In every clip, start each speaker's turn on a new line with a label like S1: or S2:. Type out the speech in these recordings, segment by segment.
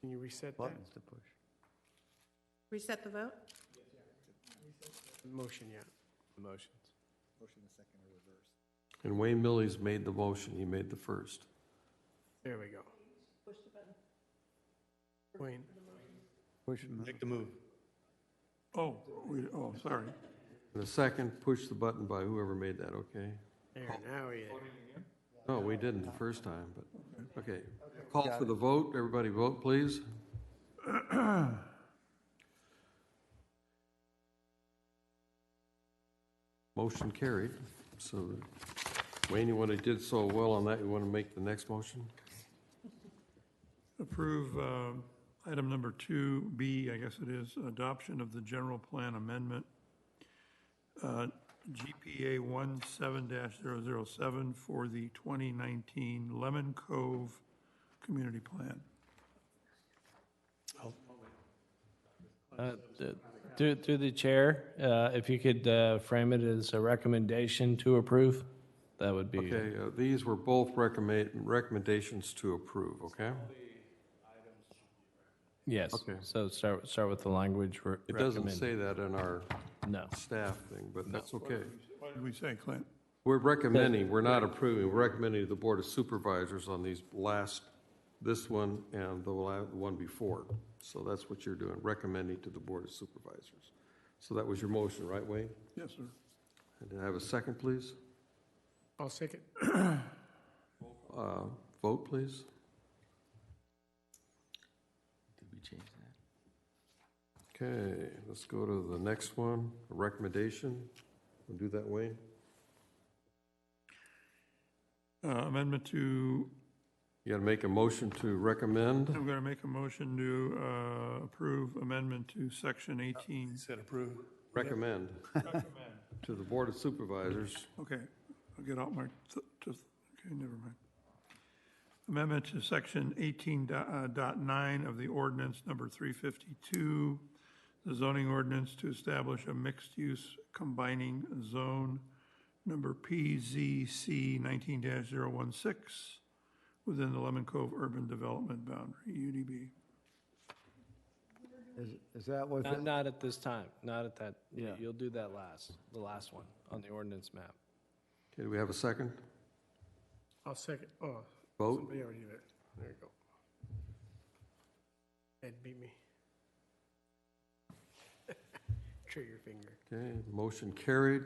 S1: Can you reset that
S2: buttons to push.
S3: Reset the vote?
S1: motion yet?
S4: Motions.
S5: And Wayne Millies made the motion, he made the first.
S1: There we go. Wayne,
S2: Push them out.
S4: Make the move.
S6: Oh, we, oh, sorry.
S5: And the second, push the button by whoever made that, okay?
S1: there, now we,
S5: No, we didn't the first time, but, okay. Call for the vote, everybody vote, please. Motion carried, so Wayne, you want to did so well on that, you want to make the next motion?
S6: Approve um, item number two, B, I guess it is, adoption of the general plan amendment, uh, GPA 17-007 for the 2019 Lemon Cove Community Plan.
S7: Uh, th- Through, through the chair, uh, if you could uh, frame it as a recommendation to approve, that would be.
S5: Okay, uh, these were both recommend, recommendations to approve, okay?
S7: Yes,
S5: Okay.
S7: so start, start with the language. re-
S5: It doesn't
S7: recommend.
S5: say that in our
S7: No,
S5: staff thing, but that's okay.
S6: What did we say, Clint?
S5: We're recommending, we're not approving, we're recommending to the Board of Supervisors on these last, this one and the la- the one before. So that's what you're doing, recommending to the Board of Supervisors. So that was your motion, right, Wayne?
S6: Yes, sir.
S5: And do I have a second, please?
S1: I'll second.
S5: Uh, Vote, please.
S2: Did we change that?
S5: Okay, let's go to the next one, a recommendation. We'll do that, Wayne.
S6: Uh, Amendment to,
S5: You got to make a motion to recommend.
S6: I'm going to make a motion to uh, approve amendment to section 18.
S4: Said approve.
S5: Recommend to the Board of Supervisors.
S6: Okay, I'll get out my, th- th- okay, never mind. Amendment to section 18 do- uh, dot 9 of the ordinance number 352, the zoning ordinance to establish a mixed-use combining zone number PZC 19-016 within the Lemon Cove Urban Development Boundary, UDB.
S2: Is, is that what,
S7: not, not at this time, not at that,
S2: Yeah.
S7: you'll do that last, the last one on the ordinance map.
S5: Okay, do we have a second?
S1: I'll second, oh,
S5: Vote?
S1: somebody already did it. There you go. Ed beat me. Trigger finger.
S5: Okay, motion carried.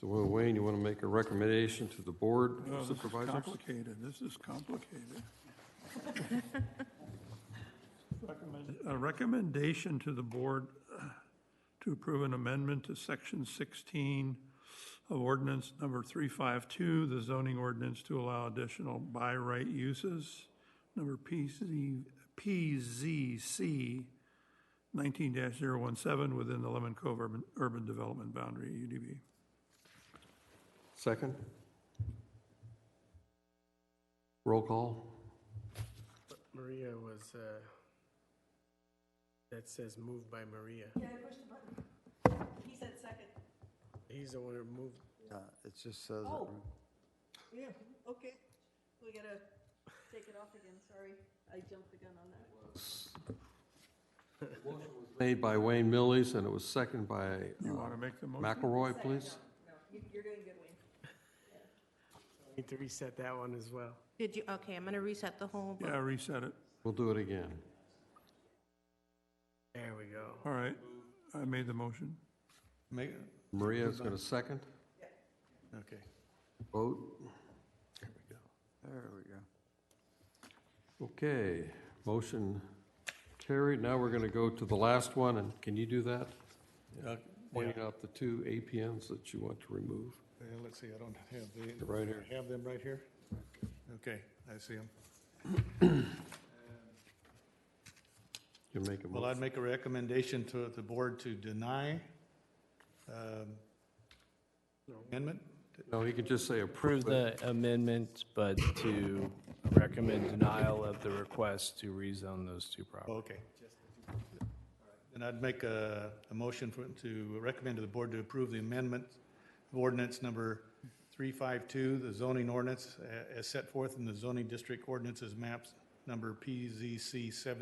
S5: So Will Wayne, you want to make a recommendation to the board
S6: Oh, this is
S5: supervisors?
S6: Complicated, this is complicated. Recommend- A recommendation to the board uh, to approve an amendment to section 16 of ordinance number 352, the zoning ordinance to allow additional by right uses, number PZ, PZC 19-017 within the Lemon Cove urban, urban development boundary, UDB.
S5: Second? Roll call?
S1: Maria was, uh, that says moved by Maria.
S3: He said second.
S1: He's the one who moved.
S2: uh, it just says, it,
S3: Oh. Yeah, okay. We gotta take it off again, sorry. I jumped the gun on that.
S5: Made by Wayne Millies, and it was seconded by
S6: You
S5: uh,
S6: want to make the motion?
S5: McElroy, please?
S3: You- You're doing good, Wayne.
S1: Need to reset that one as well.
S8: Did you, okay, I'm going to reset the whole vote.
S6: Yeah, reset it.
S5: We'll do it again.
S1: There we go.
S6: All right, I made the motion.
S4: Make,
S5: Maria is going to second.
S4: okay.
S5: Vote?
S4: There we go.
S2: there we go.
S5: Okay, motion carried. Now we're going to go to the last one, and can you do that?
S4: Uh,
S5: Pointing out the two APNs that you want to remove.
S4: yeah, Uh, let's see, I don't have the.
S5: Right here.
S4: I Have them right here? Okay, I see them.
S5: You make a
S4: Well, I'd
S5: motion.
S4: make a recommendation to the board to deny um, amendment.
S5: No, you can just say approve
S7: Approve
S5: it.
S7: the amendment, but to recommend denial of the request to rezone those two properties.
S4: Oh, Okay. And I'd make a, a motion for, to recommend to the board to approve the amendment of ordinance number 352, the zoning ordinance a- as set forth in the zoning district ordinances maps number PZC 7.